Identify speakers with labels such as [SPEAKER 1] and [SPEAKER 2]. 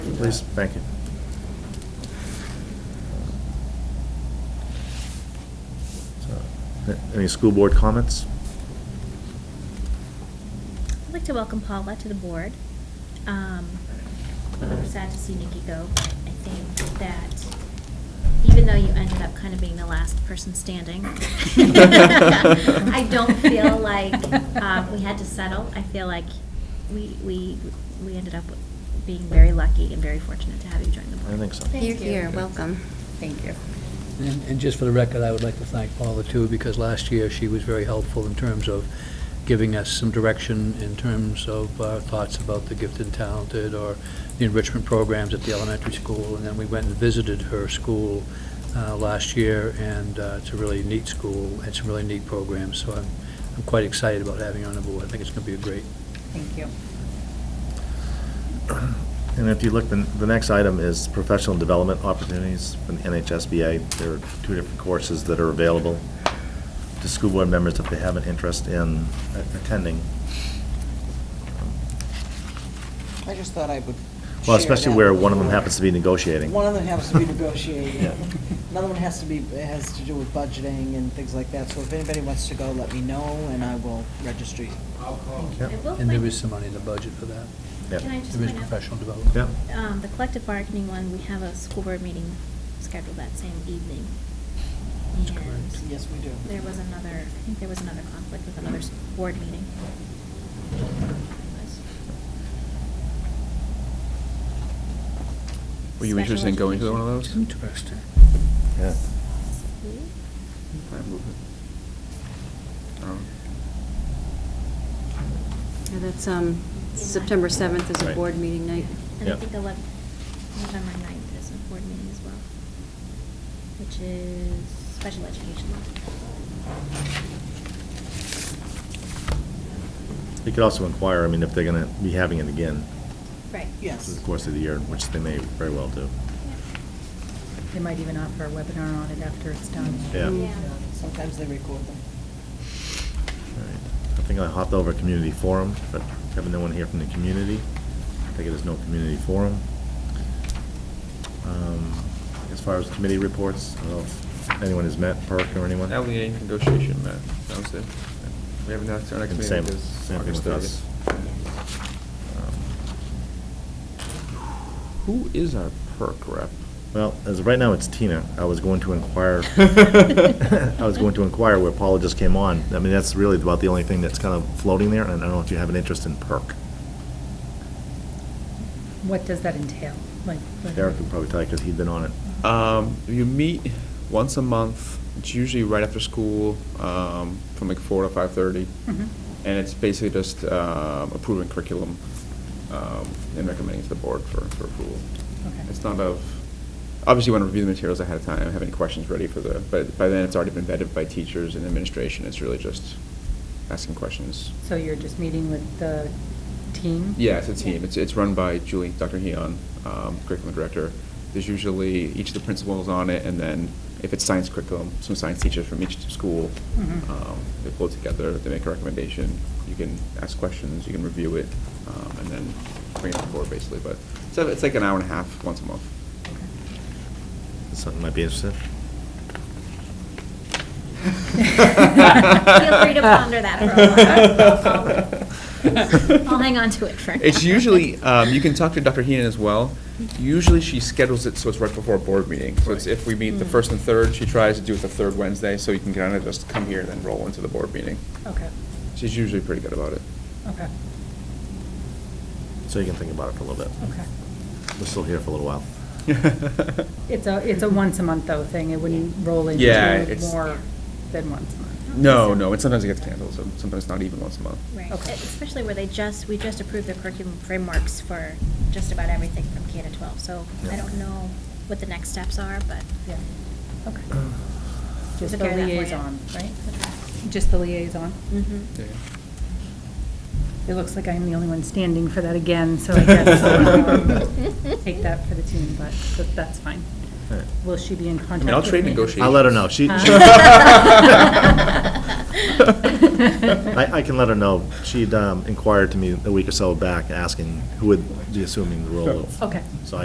[SPEAKER 1] please? Thank you. So, a- Any school board comments?
[SPEAKER 2] I'd like to welcome Paula to the board. Um, I'm sad to see Nikki go, but I think that even though you ended up kind of being the last person standing, I don't feel like um, we had to settle. I feel like we, we, we ended up being very lucky and very fortunate to have you join the board.
[SPEAKER 1] I think so.
[SPEAKER 2] Thank
[SPEAKER 3] Here,
[SPEAKER 2] you.
[SPEAKER 3] here, welcome. Thank you.
[SPEAKER 4] And and just for the record, I would like to thank Paula too, because last year she was very helpful in terms of giving us some direction in terms of our thoughts about the gifted and talented or the enrichment programs at the elementary school. And then we went and visited her school uh, last year, and uh, it's a really neat school, and some really neat programs. So I'm I'm quite excited about having her on the board. I think it's going to be a great,
[SPEAKER 3] Thank you.
[SPEAKER 1] And if you look, the, the next item is professional development opportunities from the NHSBA. There are two different courses that are available to school board members if they have an interest in a- attending.
[SPEAKER 5] I just thought I would.
[SPEAKER 1] Well,
[SPEAKER 5] share
[SPEAKER 1] especially
[SPEAKER 5] that
[SPEAKER 1] where
[SPEAKER 5] with
[SPEAKER 1] one of
[SPEAKER 5] you.
[SPEAKER 1] them happens to be negotiating.
[SPEAKER 5] One of them happens to be negotiating.
[SPEAKER 1] Yeah.
[SPEAKER 5] Another one has to be, it has to do with budgeting and things like that. So if anybody wants to go, let me know and I will register you.
[SPEAKER 1] Yeah.
[SPEAKER 2] I will
[SPEAKER 4] and there
[SPEAKER 2] point-
[SPEAKER 4] is some money in the budget for that.
[SPEAKER 1] Yeah.
[SPEAKER 2] Can I just
[SPEAKER 4] There is
[SPEAKER 2] point out-
[SPEAKER 4] professional development.
[SPEAKER 1] Yeah.
[SPEAKER 2] um, the collective bargaining one, we have a school board meeting scheduled that same evening.
[SPEAKER 4] That's
[SPEAKER 2] And
[SPEAKER 4] correct.
[SPEAKER 5] Yes, we do.
[SPEAKER 2] There was another, I think there was another conflict with another s- board meeting.
[SPEAKER 6] Were you interested in going to one of those?
[SPEAKER 4] Interesting.
[SPEAKER 1] Yeah.
[SPEAKER 6] If I move it. Um,
[SPEAKER 3] Yeah, that's, um, September 7th is a
[SPEAKER 1] Right.
[SPEAKER 3] board meeting night.
[SPEAKER 2] And I
[SPEAKER 1] Yeah.
[SPEAKER 2] think eleven, November ninth is a board meeting as well, which is special education.
[SPEAKER 1] You could also inquire, I mean, if they're going to be having it again
[SPEAKER 2] Right.
[SPEAKER 1] through
[SPEAKER 5] Yes.
[SPEAKER 1] the course of the year, which they may very well do.
[SPEAKER 7] They might even offer a webinar on it after it's done.
[SPEAKER 1] Yeah.
[SPEAKER 3] Mm.
[SPEAKER 5] Sometimes they record them.
[SPEAKER 1] All right. I think I hopped over community forum, but having no one here from the community, I think it is no community forum. Um, As far as committee reports, I don't know if anyone has met, Perk or anyone?
[SPEAKER 6] That leading E negotiation, Matt, that was it. We haven't asked our next
[SPEAKER 1] And
[SPEAKER 6] meeting
[SPEAKER 1] same-
[SPEAKER 6] because
[SPEAKER 1] same thing
[SPEAKER 6] August
[SPEAKER 1] with us.
[SPEAKER 6] 30th. Um, Who is our perk rep?
[SPEAKER 1] Well, as of right now, it's Tina. I was going to inquire, I was going to inquire where Paula just came on. I mean, that's really about the only thing that's kind of floating there, and I don't know if you have an interest in Perk.
[SPEAKER 7] What does that entail? Like, what-
[SPEAKER 1] Derek could probably tell you, because he'd been on it.
[SPEAKER 6] Um, you meet once a month. It's usually right after school, um, from like four to five thirty.
[SPEAKER 7] Mhm.
[SPEAKER 6] And it's basically just, um, approving curriculum, um, and recommending it to the board for, for approval.
[SPEAKER 7] Okay.
[SPEAKER 6] It's not of, obviously you want to review the materials ahead of time, have any questions ready for the, but by then it's already been vetted by teachers and administration. It's really just asking questions.
[SPEAKER 7] So you're just meeting with the team?
[SPEAKER 6] Yeah, it's a team. It's, it's run by Julie, Dr. Heon, um, curriculum director. There's usually, each of the principals on it, and then if it's science curriculum, some science teachers from each school.
[SPEAKER 7] Mhm.
[SPEAKER 6] Um, They pull it together, they make a recommendation, you can ask questions, you can review it, um, and then bring it to the board basically. But, so it's like an hour and a half once a month.
[SPEAKER 1] Something might be interested.
[SPEAKER 2] Feel free to ponder that for
[SPEAKER 6] a while.
[SPEAKER 2] I'll hang on to it for now.
[SPEAKER 6] It's usually, um, you can talk to Dr. Heenan as well. Usually she schedules it so it's right before a board meeting. So it's if we meet the first and third, she tries to do it the third Wednesday, so you can kind of just come here, then roll into the board meeting.
[SPEAKER 7] Okay,
[SPEAKER 6] She's usually pretty good about it.
[SPEAKER 7] okay,
[SPEAKER 1] So you can think about it for a little bit.
[SPEAKER 7] okay.
[SPEAKER 1] We're still here for a little while.
[SPEAKER 7] It's a, it's a once a month though thing, it wouldn't roll
[SPEAKER 6] Yeah,
[SPEAKER 7] into
[SPEAKER 6] it's-
[SPEAKER 7] more than once a month.
[SPEAKER 6] No, no, and sometimes it gets canceled, so sometimes not even once a month.
[SPEAKER 2] Right, E,
[SPEAKER 7] Okay.
[SPEAKER 2] especially where they just, we just approved the curriculum frameworks for just about everything from K to 12. So I
[SPEAKER 1] Yeah.
[SPEAKER 2] don't know what the next steps are, but.
[SPEAKER 7] Yeah, okay.
[SPEAKER 2] Took
[SPEAKER 7] Just the
[SPEAKER 2] care of that for you.
[SPEAKER 7] liaison, right? Just the liaison?
[SPEAKER 2] Mhm.
[SPEAKER 7] It looks like I'm the only one standing for that again, so I guess I'll um, take that for the team, but but that's fine.
[SPEAKER 1] All right.
[SPEAKER 7] Will she be in contact with
[SPEAKER 6] mean,
[SPEAKER 7] me?
[SPEAKER 6] I'll trade negotiations.
[SPEAKER 1] I'll let her know. She,
[SPEAKER 7] Huh?
[SPEAKER 1] she- I, I can let her know. She'd um, inquired to me a week or so back, asking who would be assuming the role of.
[SPEAKER 7] Okay.
[SPEAKER 1] So